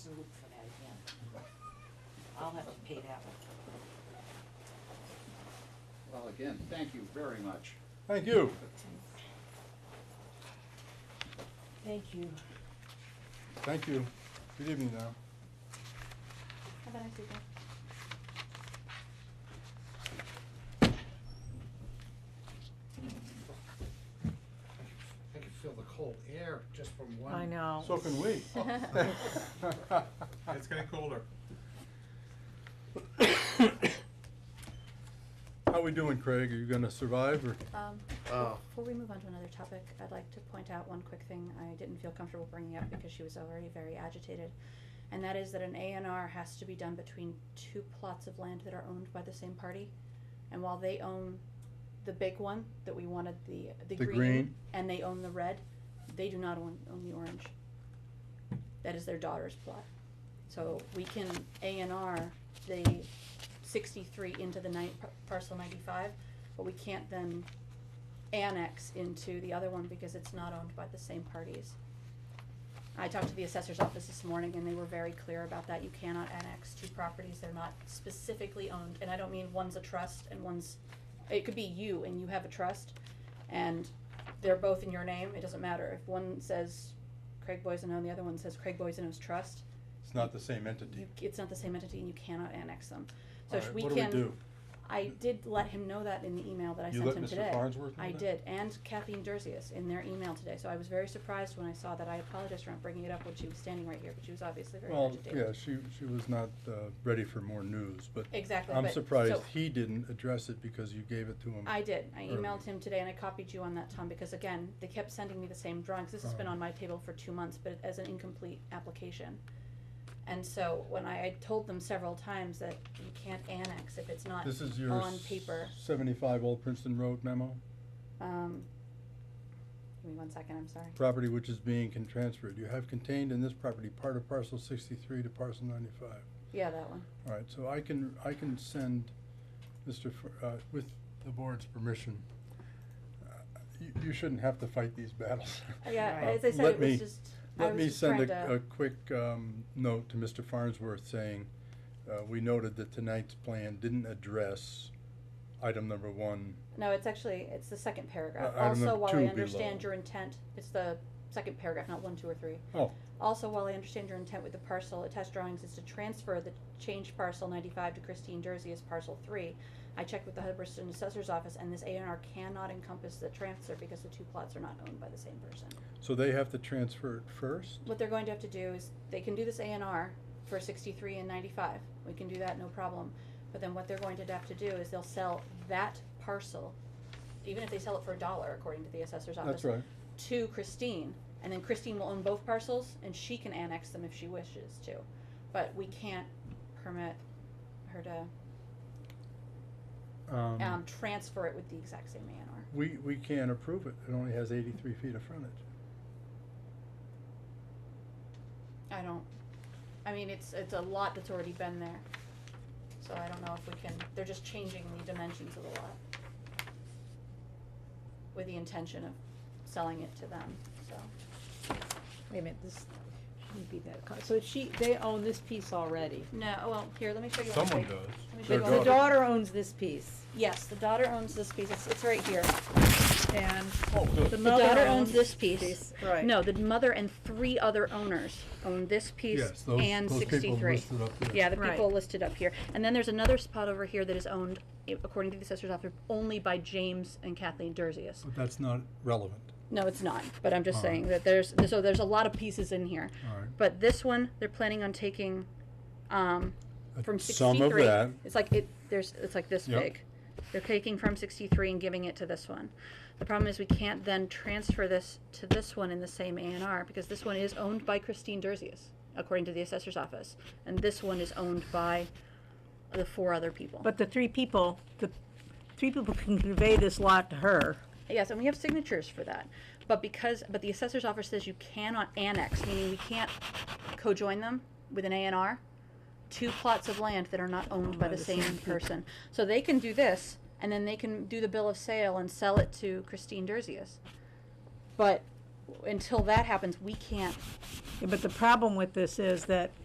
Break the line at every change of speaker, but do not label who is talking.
that one.
Well, again, thank you very much.
Thank you.
Thank you.
Thank you. Good evening now.
Have a nice evening.
I can feel the cold air just from one.
I know.
So can we.
It's getting colder.
How we doing, Craig? Are you gonna survive or?
Um,
Oh.
before we move on to another topic, I'd like to point out one quick thing I didn't feel comfortable bringing up because she was already very agitated. And that is that an A and R has to be done between two plots of land that are owned by the same party. And while they own the big one that we wanted, the, the
The
green,
green.
and they own the red, they do not own, own the orange. That is their daughter's plot. So we can A and R the sixty-three into the nine, parcel ninety-five, but we can't then annex into the other one because it's not owned by the same parties. I talked to the assessor's office this morning and they were very clear about that. You cannot annex two properties. They're not specifically owned. And I don't mean one's a trust and one's, it could be you and you have a trust and they're both in your name. It doesn't matter. If one says Craig Boyzano and the other one says Craig Boyzano's trust,
It's not the same entity.
you, it's not the same entity and you cannot annex them.
All
So if
right,
we
what
can.
do we do?
I did let him know that in the email that I
You
sent
let
him
Mr.
today.
Farnsworth know
I
that?
did, and Kathleen Derzius in their email today, so I was very surprised when I saw that. I apologize for not bringing it up when she was standing right here, but she was obviously very
Well,
agitated.
yeah, she, she was not, uh, ready for more news, but.
Exactly,
I'm
but-
surprised
so-
he didn't address it because you gave it to him.
I did. I
earlier.
emailed him today and I copied you on that, Tom, because again, they kept sending me the same drawings. This has been
Oh.
on my table for two months, but as an incomplete application. And so when I, I told them several times that you can't annex if it's not
This is your.
on paper.
Seventy-five Old Princeton Road memo,
Um, give me one second, I'm sorry.
property which is being can transferred. You have contained in this property part of parcel sixty-three to parcel ninety-five.
Yeah, that one.
All right, so I can, I can send Mr., Fr- uh, with the board's permission. Uh, You, you shouldn't have to fight these battles.
Yeah,
Uh,
as I said,
let
it
me-
was just, I
Let
was
me
just
send
trying
a, a
to,
quick, um, note to Mr. Farnsworth saying, uh, we noted that tonight's plan didn't address item number one.
no, it's actually, it's the second paragraph.
Uh, item
Also,
number
while
two
I
below.
understand your intent, it's the second paragraph, not one, two, or three.
Oh,
Also, while I understand your intent with the parcel attached drawings is to transfer the change parcel ninety-five to Christine Jersey as parcel three, I checked with the Hubbardston Assessor's Office and this A and R cannot encompass the transfer because the two plots are not owned by the same person.
so they have to transfer it first?
What they're going to have to do is, they can do this A and R for sixty-three and ninety-five, we can do that, no problem. But then what they're going to have to do is they'll sell that parcel, even if they sell it for a dollar, according to the assessor's office.
That's right.
To Christine, and then Christine will own both parcels, and she can annex them if she wishes to. But we can't permit her to, um, transfer it with the exact same A and R.
We, we can't approve it. It only has eighty-three feet of frontage.
I don't, I mean, it's, it's a lot that's already been there. So I don't know if we can, they're just changing the dimensions of the lot. With the intention of selling it to them, so.
Wait a minute, this shouldn't be that, co- so she, they own this piece already.
No, oh, well, here, let me show you. one
Someone
thing.
does.
Let me show
The
Their
you one
the
thing.
daughter owns this piece,
Yes, the daughter owns this piece, it's, it's right here.
and
Oh,
the
good.
The
mother owns.
daughter owns this piece.
Right.
No, the mother and three other owners own this
Yes,
piece
those-
and
those people
sixty-three.
listed up there.
Yeah, the
Right.
people listed up here. And then there's another spot over here that is owned, i- according to the assessor's office, only by James and Kathleen Derzius.
But that's not relevant.
No, it's not, but I'm just
All right.
saying that there's, so there's a lot of pieces in here.
All right.
But this one, they're planning on taking, um,
Uh,
from sixty-three.
Some of that,
It's like it, there's, it's like this
Yep.
big. They're taking from sixty-three and giving it to this one. The problem is we can't then transfer this to this one in the same A and R because this one is owned by Christine Derzius, according to the assessor's office. And this one is owned by the four other people.
But the three people, the three people can convey this lot to her.
Yes, and we have signatures for that. But because, but the assessor's office says you cannot annex, meaning we can't co-join them with an A and R, two plots of land that are not owned by the same person. So they can do this, and then they can do the bill of sale and sell it to Christine Derzius. But until that happens, we can't
But the problem with this is that